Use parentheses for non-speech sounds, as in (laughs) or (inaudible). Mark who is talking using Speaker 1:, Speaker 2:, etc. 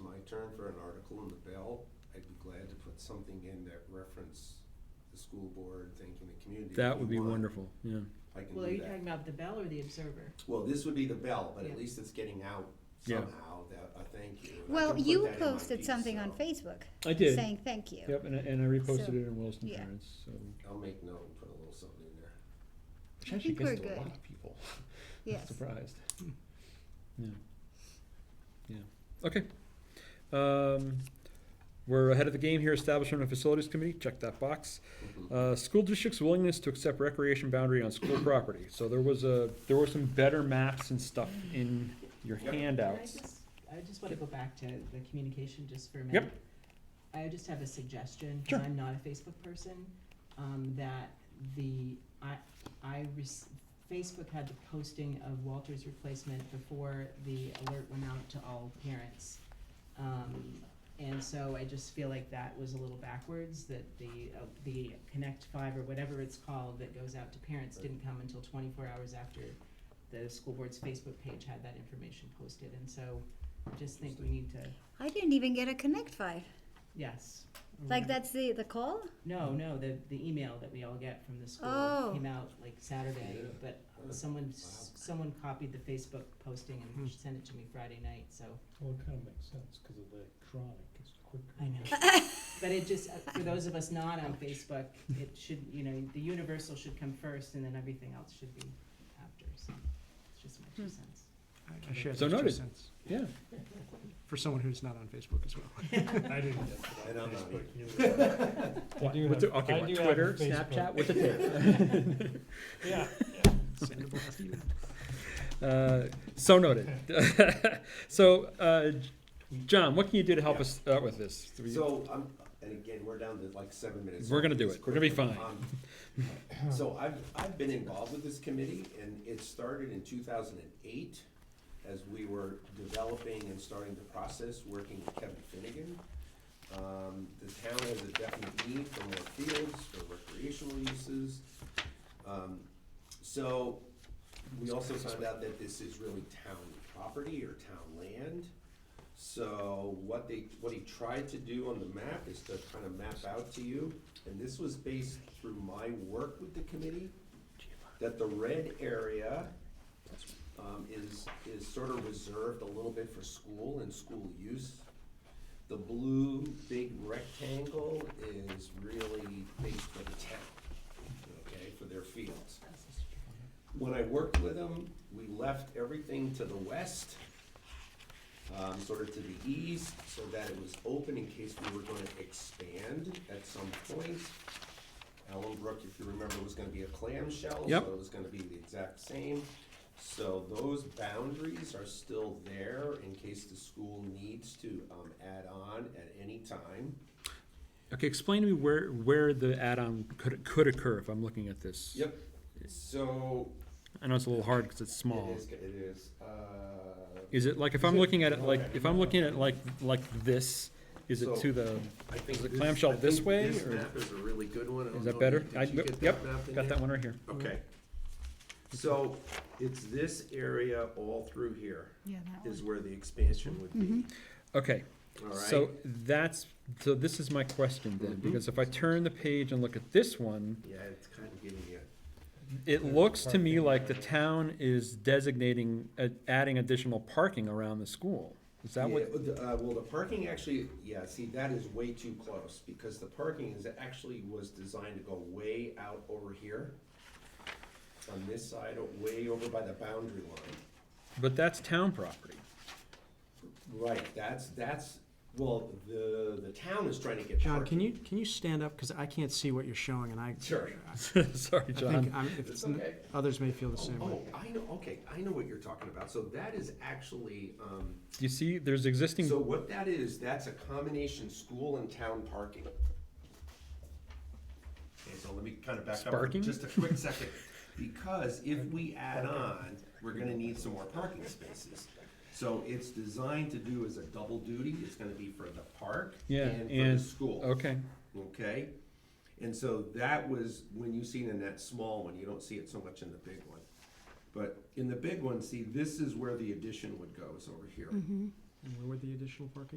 Speaker 1: my turn for an article in the Bell, I'd be glad to put something in that reference the school board thinking the community.
Speaker 2: That
Speaker 1: if
Speaker 2: would
Speaker 1: you
Speaker 2: be
Speaker 1: want.
Speaker 2: wonderful, yeah.
Speaker 1: I can
Speaker 3: Well, are
Speaker 1: do
Speaker 3: you
Speaker 1: that.
Speaker 3: talking about the bell or the observer?
Speaker 1: Well, this would be the Bell, but
Speaker 3: Yeah.
Speaker 1: at least it's getting out
Speaker 2: Yeah.
Speaker 1: somehow, that, a thank you. and I
Speaker 4: Well,
Speaker 1: can put
Speaker 4: you
Speaker 1: that in my
Speaker 4: posted
Speaker 1: piece,
Speaker 4: something on
Speaker 1: so
Speaker 4: Facebook
Speaker 2: I did,
Speaker 4: saying thank you.
Speaker 2: yep, and, I- and I reposted
Speaker 4: So,
Speaker 2: it in Williston
Speaker 4: yeah.
Speaker 2: Parents, so.
Speaker 1: I'll make note and put a little something in there. (laughs)
Speaker 2: Which
Speaker 4: I
Speaker 2: actually
Speaker 4: think we're
Speaker 2: gets to a lot
Speaker 4: good.
Speaker 2: of people.
Speaker 4: Yes.
Speaker 2: Surprised. Hmm. Yeah. Yeah. Okay. Um, we're ahead of the game here, establishment of facilities committee, check that box.
Speaker 1: Mhm.
Speaker 2: Uh, school district's willingness to accept recreation boundary on school property. So there was a, there were some better maps and stuff in your
Speaker 1: Yep.
Speaker 3: Can I
Speaker 2: handouts.
Speaker 3: just, I just wanna go back to the communication just for a
Speaker 2: Yep.
Speaker 3: minute. I just have a suggestion, 'cause
Speaker 2: Sure.
Speaker 3: I'm not a Facebook person, um, that the, I, I rec- Facebook had the posting of Walter's replacement before the alert went out to all parents. Um, and so I just feel like that was a little backwards, that the, uh, the Connect Five or whatever it's called that goes out to parents didn't come until twenty-four hours after the school board's Facebook page had that information posted, and so I just think we need to,
Speaker 4: I didn't even get a Connect Five.
Speaker 3: yes.
Speaker 4: Like
Speaker 2: Mm-hmm.
Speaker 4: that's the the call.
Speaker 3: No, no, the, the email that we all get from the
Speaker 4: Oh.
Speaker 3: school came out like Saturday,
Speaker 1: Yeah.
Speaker 3: but
Speaker 1: Wow.
Speaker 3: someone, s- someone copied the Facebook posting and sent it to me Friday night, so.
Speaker 5: Well, it kind of makes sense, because electronic is quicker.
Speaker 3: I know. But it just, uh, for those of us not on Facebook, it should, you know, the universal should come first and then everything else should be after, so it's just my two cents.
Speaker 6: I share
Speaker 2: So
Speaker 6: those two
Speaker 2: noted.
Speaker 6: cents,
Speaker 2: Yeah.
Speaker 6: for someone who's not on Facebook as well.
Speaker 5: I didn't get
Speaker 1: I
Speaker 5: that
Speaker 1: don't
Speaker 5: on
Speaker 1: know.
Speaker 5: Facebook
Speaker 1: (laughs)
Speaker 5: either. I
Speaker 2: What-
Speaker 5: do
Speaker 2: what's
Speaker 5: have-
Speaker 2: it- Okay,
Speaker 5: I
Speaker 2: what,
Speaker 5: do have
Speaker 2: Twitter,
Speaker 5: Facebook.
Speaker 2: Snapchat, what's (laughs) it take?
Speaker 5: Yeah.
Speaker 6: Sendable to you.
Speaker 2: Uh, so noted. (laughs) so, uh, John, what can you do to help us out with this?
Speaker 1: So, um, and again, we're down to like seven minutes.
Speaker 2: We're gonna do it. We're gonna be fine.
Speaker 1: Um, (laughs) So I've, I've been involved with this committee and it started in two thousand and eight as we were developing and starting the process, working with Kevin Finnegan. Um, the town has a definite need for more fields, for recreational uses. Um, so we also found out that this is really town property or town land. So what they, what he tried to do on the map is to kind of map out to you, and this was based through my work with the committee, that the red area um, is, is sort of reserved a little bit for school and school use. The blue big rectangle is really based for the town, okay, for their fields. When I worked with them, we left everything to the west, um, sort of to the east, so that it was open in case we were gonna expand at some point. Ellenbrook, if you remember, was gonna be a clamshell, so
Speaker 2: Yep.
Speaker 1: it was gonna be the exact same. So those boundaries are still there in case the school needs to, um, add on at any time.
Speaker 2: Okay, explain to me where, where the add-on could, could occur if I'm looking at this.
Speaker 1: Yep, so
Speaker 2: I know it's a little hard because it's small.
Speaker 1: it is, it is, uh,
Speaker 2: Is it like, if I'm looking at it like, if I'm looking at it like, like this, is it
Speaker 1: So-
Speaker 2: to the,
Speaker 1: I think
Speaker 2: Is the
Speaker 1: this-
Speaker 2: clamshell
Speaker 1: I think
Speaker 2: this way,
Speaker 1: This
Speaker 2: or-
Speaker 1: map is a really good one. I don't
Speaker 2: is
Speaker 1: know
Speaker 2: that
Speaker 1: if
Speaker 2: better?
Speaker 1: you-
Speaker 2: I-
Speaker 1: Did you get
Speaker 2: Yep,
Speaker 1: that map in
Speaker 2: got that
Speaker 1: there?
Speaker 2: one Mm-hmm. right here.
Speaker 1: Okay. So it's this area all through here
Speaker 4: Yeah, that Mm-hmm.
Speaker 1: is where the expansion would be,
Speaker 2: Okay,
Speaker 1: all right?
Speaker 2: so that's, so this is my question then,
Speaker 1: Mhm.
Speaker 2: because if I turn the page and look at this one,
Speaker 1: Yeah, it's kind of giving you,
Speaker 2: it looks to me like the town is designating, uh, adding additional parking around the school. Is
Speaker 1: yeah,
Speaker 2: that what?
Speaker 1: the- uh, well, the parking actually, yeah, see, that is way too close, because the parking is, actually was designed to go way out over here. On this side, way over by the boundary line.
Speaker 2: But that's town property. (laughs)
Speaker 1: Right, that's, that's, well, the, the town is trying to get
Speaker 6: John,
Speaker 1: parking.
Speaker 6: can you, can you stand up, because I can't see what you're showing, and I.
Speaker 1: Sure.
Speaker 2: Sorry,
Speaker 6: I think
Speaker 2: John.
Speaker 6: I'm, if
Speaker 1: It's
Speaker 6: it's, n-
Speaker 1: okay.
Speaker 6: others may feel the same way.
Speaker 1: Oh, I know, okay, I know what you're talking about. So that is actually, um,
Speaker 2: Do you see, there's existing,
Speaker 1: so what that is, that's a combination school and town parking. Okay, so let me kind of back up for
Speaker 2: Sparking?
Speaker 1: just a quick second, because if we add on, we're gonna need some more parking spaces. So it's designed to do as a double duty. It's gonna be for the park
Speaker 2: yeah,
Speaker 1: and for the
Speaker 2: and,
Speaker 1: school.
Speaker 2: okay,
Speaker 1: Okay? And so that was, when you see it in that small one, you don't see it so much in the big one. But in the big one, see, this is where the addition would go, is over here.
Speaker 6: And Where would the additional parking